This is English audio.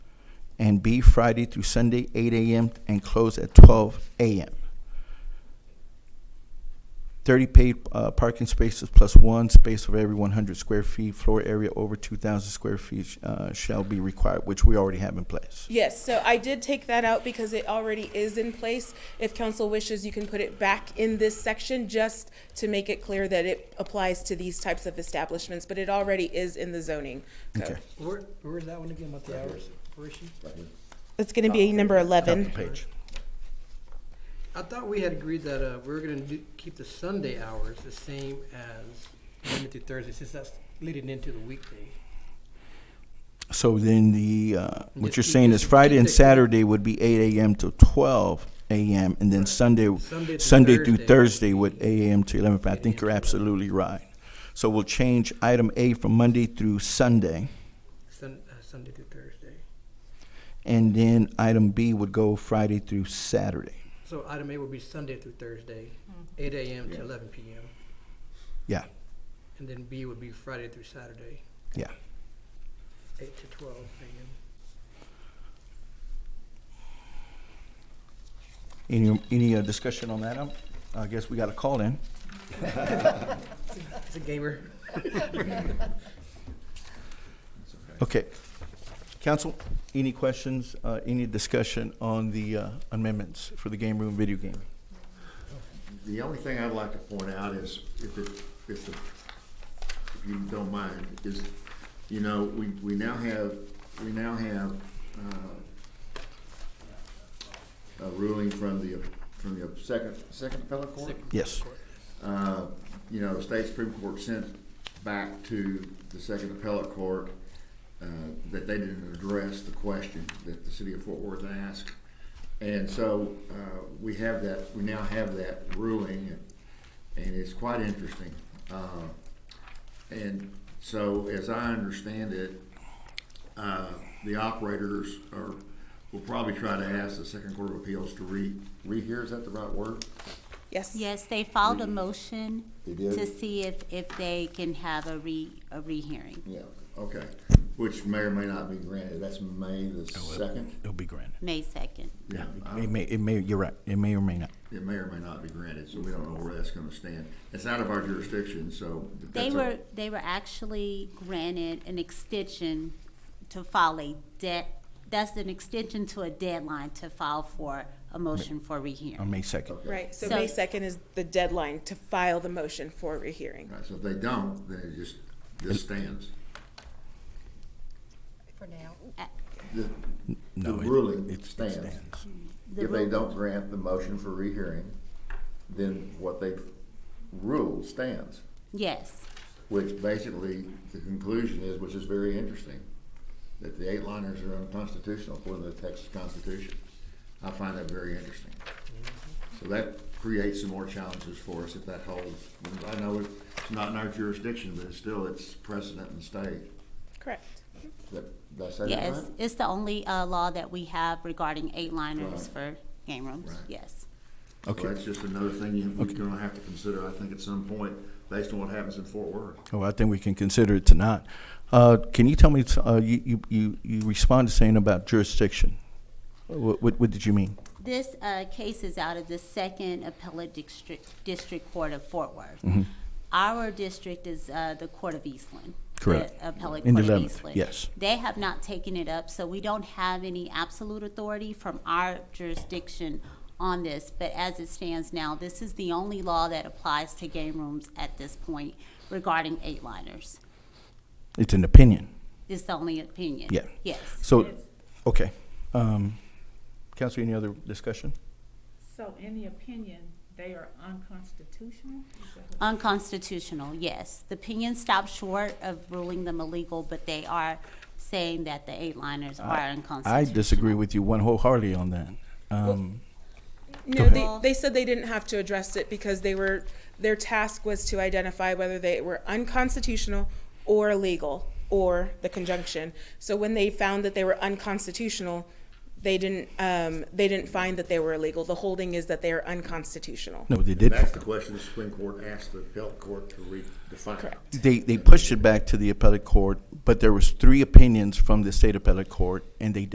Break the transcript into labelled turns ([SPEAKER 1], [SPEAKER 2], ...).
[SPEAKER 1] and B, Friday through Sunday, 8 a.m. and close at 12 a.m. 30 paid uh, parking spaces plus one space for every 100 square feet. Floor area over 2,000 square feet uh, shall be required, which we already have in place.
[SPEAKER 2] Yes, so I did take that out because it already is in place. If council wishes, you can put it back in this section just to make it clear that it applies to these types of establishments, but it already is in the zoning
[SPEAKER 1] Okay.
[SPEAKER 2] code.
[SPEAKER 3] Where, where's that one again, what the hours, where is she?
[SPEAKER 2] It's gonna be number
[SPEAKER 1] Top
[SPEAKER 2] eleven.
[SPEAKER 1] of page.
[SPEAKER 3] I thought we had agreed that, uh, we were gonna do, keep the Sunday hours the same as Monday through Thursday, since that's leading into the weekday.
[SPEAKER 1] So then the, uh, what
[SPEAKER 3] Just
[SPEAKER 1] you're
[SPEAKER 3] keep-
[SPEAKER 1] saying is
[SPEAKER 3] just
[SPEAKER 1] Friday
[SPEAKER 3] keep
[SPEAKER 1] and
[SPEAKER 3] it-
[SPEAKER 1] Saturday would be 8 a.m. to 12 a.m. and then Sunday,
[SPEAKER 3] Sunday through
[SPEAKER 1] Sunday through
[SPEAKER 3] Thursday.
[SPEAKER 1] Thursday would 8 a.m. to 11. I
[SPEAKER 3] 8
[SPEAKER 1] think
[SPEAKER 3] a.m.
[SPEAKER 1] you're
[SPEAKER 3] to 11.
[SPEAKER 1] absolutely right. So we'll change item A from Monday through Sunday.
[SPEAKER 3] Sun, uh, Sunday through Thursday.
[SPEAKER 1] And then item B would go Friday through Saturday.
[SPEAKER 3] So item A would be Sunday through Thursday, eight AM to eleven PM.
[SPEAKER 1] Yeah,
[SPEAKER 3] And then B would be Friday through Saturday,
[SPEAKER 1] yeah.
[SPEAKER 3] eight to twelve AM.
[SPEAKER 1] Any, any uh, discussion on that? Um, I guess we got a call in.
[SPEAKER 3] It's a gamer.
[SPEAKER 1] Okay. Council, any questions, uh, any discussion on the uh, amendments for the game room video game?
[SPEAKER 4] The only thing I'd like to point out is, if it, if the, if you don't mind, is, you know, we, we now have, we now have, uh, a ruling from the, from the second, second appellate court?
[SPEAKER 1] Yes.
[SPEAKER 4] Uh, you know, the state Supreme Court sent back to the second appellate court, uh, that they didn't address the question that the city of Fort Worth asked. And so, uh, we have that, we now have that ruling, and it's quite interesting. Uh, and so, as I understand it, uh, the operators are, will probably try to ask the second court of appeals to re, rehear, is that the right word?
[SPEAKER 2] Yes.
[SPEAKER 5] Yes, they filed a motion
[SPEAKER 4] They did?
[SPEAKER 5] to see if, if they can have a re, a rehearing,
[SPEAKER 4] Yeah, okay, which may or may not be granted, that's May the second?
[SPEAKER 1] It'll be granted.
[SPEAKER 5] May second.
[SPEAKER 4] Yeah. I
[SPEAKER 1] Oh, It
[SPEAKER 4] don't-
[SPEAKER 1] may, it may, you're right, it may or may not.
[SPEAKER 4] It may or may not be granted, so we don't know where that's gonna stand. It's out of our jurisdiction, so. but
[SPEAKER 5] They
[SPEAKER 4] that's a-
[SPEAKER 5] were, they were actually granted an extension to file a debt, that's an extension to a deadline to file for a motion for
[SPEAKER 4] Um,
[SPEAKER 1] On
[SPEAKER 5] rehearing.
[SPEAKER 1] May second.
[SPEAKER 2] Right, so
[SPEAKER 5] So-
[SPEAKER 2] May second is the deadline to file the motion for rehearing.
[SPEAKER 4] Right, so if they don't, then it just, this stands.
[SPEAKER 6] for now.
[SPEAKER 4] The, the
[SPEAKER 1] No, it- it-
[SPEAKER 4] ruling
[SPEAKER 1] it
[SPEAKER 4] stands.
[SPEAKER 1] stands.
[SPEAKER 5] The
[SPEAKER 4] If they
[SPEAKER 5] ru-
[SPEAKER 4] don't grant the motion for rehearing, then what they ruled stands,
[SPEAKER 5] Yes,
[SPEAKER 4] which basically, the conclusion is, which is very interesting, that the eight-liners are unconstitutional according to the Texas Constitution. I find that very interesting. So that creates some more challenges for us if that holds. I know it's not in our jurisdiction, but it's still, it's precedent in the state.
[SPEAKER 2] Correct.
[SPEAKER 4] That, did I say that right?
[SPEAKER 5] yes, it's the only, uh, law that we have regarding eight-liners for game rooms,
[SPEAKER 4] Right.
[SPEAKER 5] yes.
[SPEAKER 4] So
[SPEAKER 1] Okay,
[SPEAKER 4] that's just another thing you, we're gonna have to consider, I think, at some point, based on what happens in Fort Worth.
[SPEAKER 1] well, I think we can consider it tonight. Uh, can you tell me, uh, you, you- you, you responded saying about jurisdiction. What, what, what did you mean?
[SPEAKER 5] This uh, case is out of the Second Appellate District, District Court of Fort Worth.
[SPEAKER 1] Mm-hmm.
[SPEAKER 5] Our district is uh, the Court of Eastland.
[SPEAKER 1] Correct.
[SPEAKER 5] The Appellate
[SPEAKER 1] In the
[SPEAKER 5] Court of
[SPEAKER 1] 11th,
[SPEAKER 5] Eastland.
[SPEAKER 1] yes.
[SPEAKER 5] They have not taken it up, so we don't have any absolute authority from our jurisdiction on this. But as it stands now, this is the only law that applies to game rooms at this point regarding eight-liners.
[SPEAKER 1] It's an opinion.
[SPEAKER 5] It's the only opinion.
[SPEAKER 1] Yeah.
[SPEAKER 5] Yes.
[SPEAKER 1] So, okay. Um, council, any other discussion?
[SPEAKER 7] So in the opinion, they are unconstitutional? Is that what-
[SPEAKER 5] Unconstitutional, yes. The opinion stops short of ruling them illegal, but they are saying that the eight-liners are unconstitutional.
[SPEAKER 1] I disagree with you one wholeheartedly on that. Um,
[SPEAKER 2] No, they,
[SPEAKER 5] ahead.
[SPEAKER 2] they said they didn't have to address it because they were, their task was to identify whether they were unconstitutional or illegal or the conjunction. So when they found that they were unconstitutional, they didn't, um, they didn't find that they were illegal. The holding is that they are unconstitutional.
[SPEAKER 1] no, they did.
[SPEAKER 4] That's the question the Supreme Court asked the appellate court to redefine.
[SPEAKER 2] Correct.
[SPEAKER 1] They, they pushed it back to the appellate court, but there was three opinions from the state appellate court, and they